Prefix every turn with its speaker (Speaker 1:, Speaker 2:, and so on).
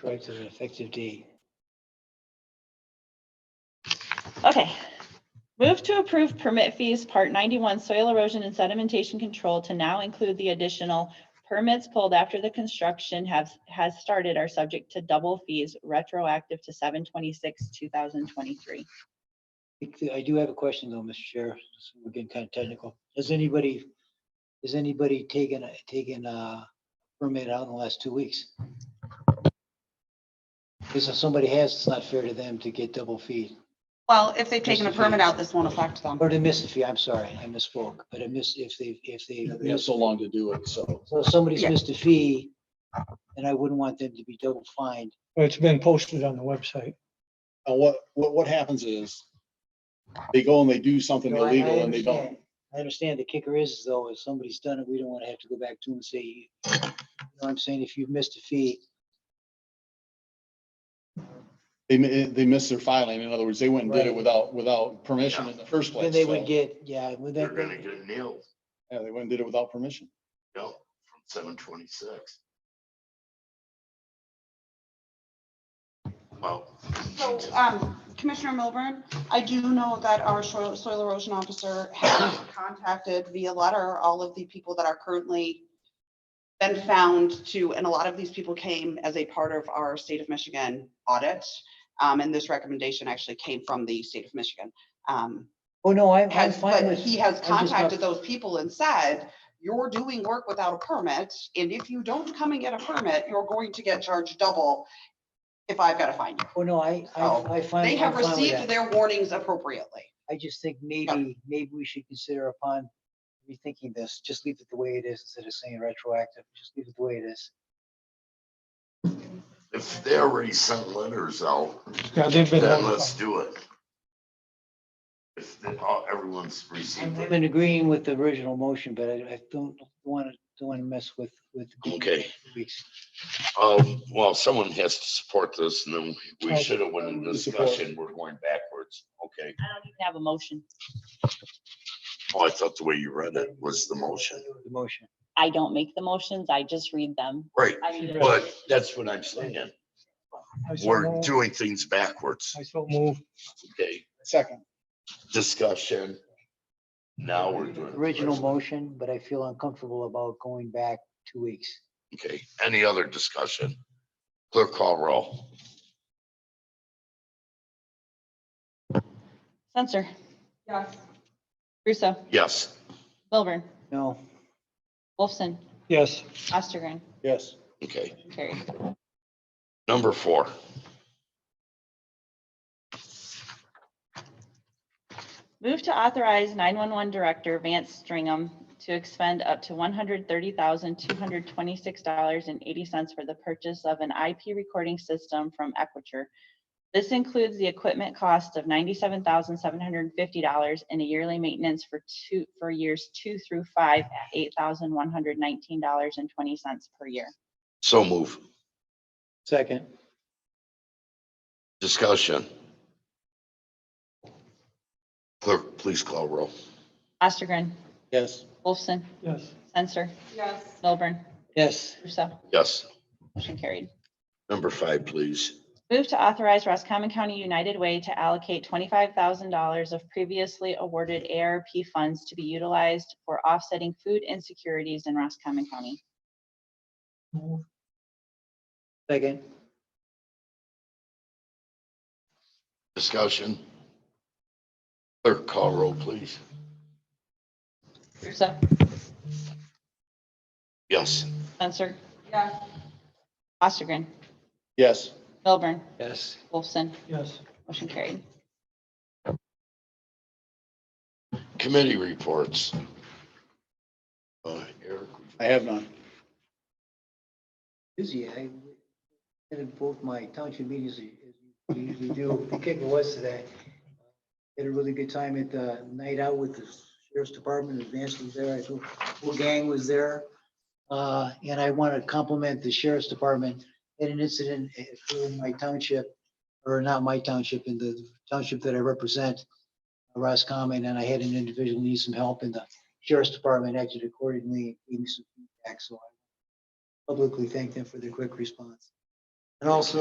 Speaker 1: Correct to an effective date.
Speaker 2: Okay. Move to approve permit fees, part ninety-one, soil erosion and sedimentation control to now include the additional permits pulled after the construction has, has started are subject to double fees retroactive to seven twenty-six, two thousand twenty-three.
Speaker 1: I do have a question though, Mr. Chair. so We're getting kind of technical. Has anybody, has anybody taken, a- taken a permit out in the last two weeks? Because if somebody has, it's not fair to them to get double fee.
Speaker 3: Well, if they've taken a
Speaker 1: Mr. Chair.
Speaker 3: permit out, this won't affect them.
Speaker 1: Or to miss the fee, I'm sorry, I misspoke, but I miss, if they, if they,
Speaker 4: Yeah, They have so long to do it, so.
Speaker 1: so if somebody's
Speaker 3: Yeah.
Speaker 1: missed a fee, and I wouldn't want them to be double fined.
Speaker 5: It's been posted on the website.
Speaker 4: And what, what, what happens is they go and they do something
Speaker 1: No, I- I
Speaker 4: illegal and they don't.
Speaker 1: understand. I understand. The kicker is though, if somebody's done it, we don't want to have to go back to them and say, you know what I'm saying? If you've missed a fee,
Speaker 4: They, mi- they miss their filing. In other words, they went and did it
Speaker 1: Right.
Speaker 4: without, without permission in the first place.
Speaker 1: then they
Speaker 4: so-
Speaker 1: would get, yeah, would
Speaker 6: They're gonna
Speaker 1: that,
Speaker 6: get nailed,
Speaker 4: Yeah, they went and did it without permission.
Speaker 6: no, from seven twenty-six. Well.
Speaker 3: So, um, Commissioner Milburn, I do know that our soil soil erosion officer has contacted via letter all of the people that are currently been found to, and a lot of these people came as a part of our state of Michigan audit. Um, and this recommendation actually came from the state of Michigan. Um,
Speaker 1: oh, no, I'm, I'm
Speaker 3: has,
Speaker 1: fine
Speaker 3: but
Speaker 1: with.
Speaker 3: he has
Speaker 1: I'm just not-
Speaker 3: contacted those people and said, you're doing work without a permit, and if you don't come and get a permit, you're going to get charged double if I've got to find you.
Speaker 1: Oh, no, I,
Speaker 3: Oh,
Speaker 1: I, I find.
Speaker 3: They have
Speaker 1: I'm fine with
Speaker 3: received
Speaker 1: that.
Speaker 3: their warnings appropriately.
Speaker 1: I just think maybe, maybe we should consider upon rethinking this, just leave it the way it is instead of saying retroactive, just leave it the way it is.
Speaker 6: If they already sent letters out,
Speaker 5: Yeah, they've been.
Speaker 6: then let's do it. If they- all- everyone's
Speaker 1: I'm
Speaker 6: received
Speaker 1: I'm
Speaker 6: it.
Speaker 1: in agreeing with the original motion, but I, I don't want to, don't want to mess with, with.
Speaker 6: Okay.
Speaker 1: Weeks.
Speaker 6: Um, well, someone has to support this and then we
Speaker 5: Okay.
Speaker 6: should have went in
Speaker 4: Support.
Speaker 6: discussion. We're going backwards. Okay.
Speaker 2: I don't even have a motion.
Speaker 6: Well, I thought the way you read it was the motion.
Speaker 1: The motion.
Speaker 2: I don't make the motions, I just read them.
Speaker 6: Right,
Speaker 2: I need a-
Speaker 6: but that's what I'm saying.
Speaker 5: I so
Speaker 6: We're
Speaker 5: moved.
Speaker 6: doing things backwards.
Speaker 5: I so move.
Speaker 6: Okay,
Speaker 4: Second,
Speaker 6: discussion. Now we're doing.
Speaker 1: Original motion, but I feel uncomfortable about going back two weeks.
Speaker 6: Okay, any other discussion? Clerk call roll.
Speaker 2: Censor.
Speaker 3: Yes.
Speaker 2: Russo,
Speaker 6: Yes,
Speaker 2: Milburn,
Speaker 1: No,
Speaker 2: Wolfson,
Speaker 5: Yes,
Speaker 2: Ostergren,
Speaker 4: yes.
Speaker 6: okay.
Speaker 2: carried.
Speaker 6: Number four,
Speaker 2: Move to authorize nine-one-one director Vance Stringham to expend up to one hundred thirty thousand, two hundred twenty-six dollars and eighty cents for the purchase of an IP recording system from Equiture. This includes the equipment cost of ninety-seven thousand, seven hundred and fifty dollars and a yearly maintenance for two, for years two through five at eight thousand, one hundred nineteen dollars and twenty cents per year.
Speaker 6: so move.
Speaker 1: second,
Speaker 6: Discussion. Clerk, please call roll.
Speaker 2: Ostergren,
Speaker 4: Yes.
Speaker 2: Wolfson,
Speaker 5: yes,
Speaker 2: Censor,
Speaker 3: Yes.
Speaker 2: Milburn,
Speaker 1: yes,
Speaker 2: Russo,
Speaker 6: Yes,
Speaker 2: motion carried.
Speaker 6: number five, please.
Speaker 2: Move to authorize Roscommon County United Way to allocate twenty-five thousand dollars of previously awarded ARP funds to be utilized for offsetting food insecurities in Roscommon County.
Speaker 5: move,
Speaker 1: second,
Speaker 6: Discussion. Clerk call roll, please.
Speaker 2: Russo,
Speaker 6: Yes,
Speaker 2: Censor,
Speaker 3: Yes.
Speaker 2: Ostergren,
Speaker 4: Yes.
Speaker 2: Milburn,
Speaker 1: yes,
Speaker 2: Wolfson,
Speaker 5: yes.
Speaker 2: motion carried.
Speaker 6: committee reports. Uh, Eric,
Speaker 4: I have none.
Speaker 1: busy, I attended both my township meetings as you usually do, the kicker was today. Had a really good time at the night out with the sheriff's department, Advance was there, I thought whole gang was there. Uh, and I want to compliment the sheriff's department, had an incident in my township, or not my township, in the township that I represent, Roscommon, and I had an individual need some help, and the sheriff's department acted accordingly, gave me some feedback, so I publicly thank them for their quick response. And also,